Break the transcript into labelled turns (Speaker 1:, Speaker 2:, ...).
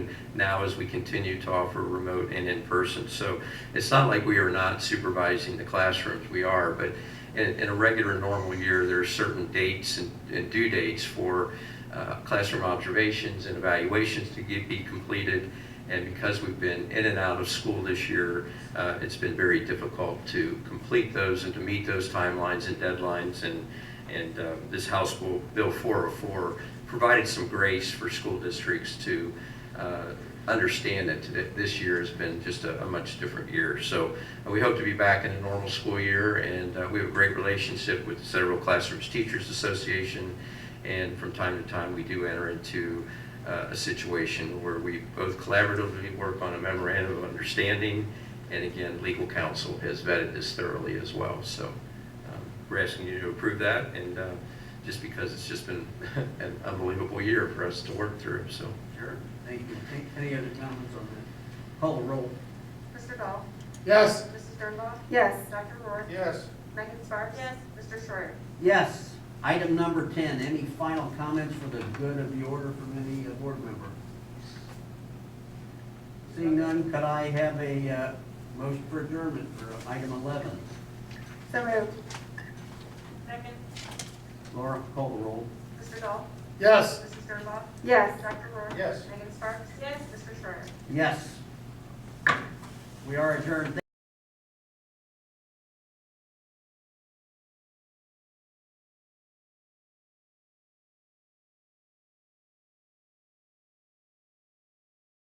Speaker 1: now as we continue to offer remote and in-person. So it's not like we are not supervising the classrooms, we are, but in, in a regular normal year, there are certain dates and, and due dates for uh, classroom observations and evaluations to get, be completed. And because we've been in and out of school this year, uh, it's been very difficult to complete those and to meet those timelines and deadlines. And, and uh, this House Bill Bill 404 provided some grace for school districts to uh, understand that today- this year has been just a a much different year. So uh, we hope to be back in a normal school year, and uh, we have a great relationship with the Central Classrooms Teachers Association. And from time to time, we do enter into uh, a situation where we both collaboratively work on a memorandum of understanding. And again, legal counsel has vetted this thoroughly as well. So um, we're asking you to approve that, and uh, just because it's just been an unbelievable year for us to work through, so.
Speaker 2: Sure, thank you. Any- Any other comments on that? Call the roll.
Speaker 3: Mr. Dahl?
Speaker 4: Yes.
Speaker 3: Mrs. Sternbach?
Speaker 5: Yes.
Speaker 3: Dr. Rohr?
Speaker 4: Yes.
Speaker 3: Megan Sparks? Yes. Mr. Schreier?
Speaker 2: Yes. Item number 10, any final comments for the good of the order from any uh, board member? Seeing none, could I have a uh, motion for adjournment for item 11?
Speaker 5: So moved.
Speaker 3: Second.
Speaker 2: Laura, call the roll.
Speaker 3: Mr. Dahl?
Speaker 4: Yes.
Speaker 3: Mrs. Sternbach?
Speaker 5: Yes.
Speaker 3: Dr. Rohr?
Speaker 4: Yes.
Speaker 3: Megan Sparks? Yes. Mr. Schreier?
Speaker 2: Yes. We are adjourned.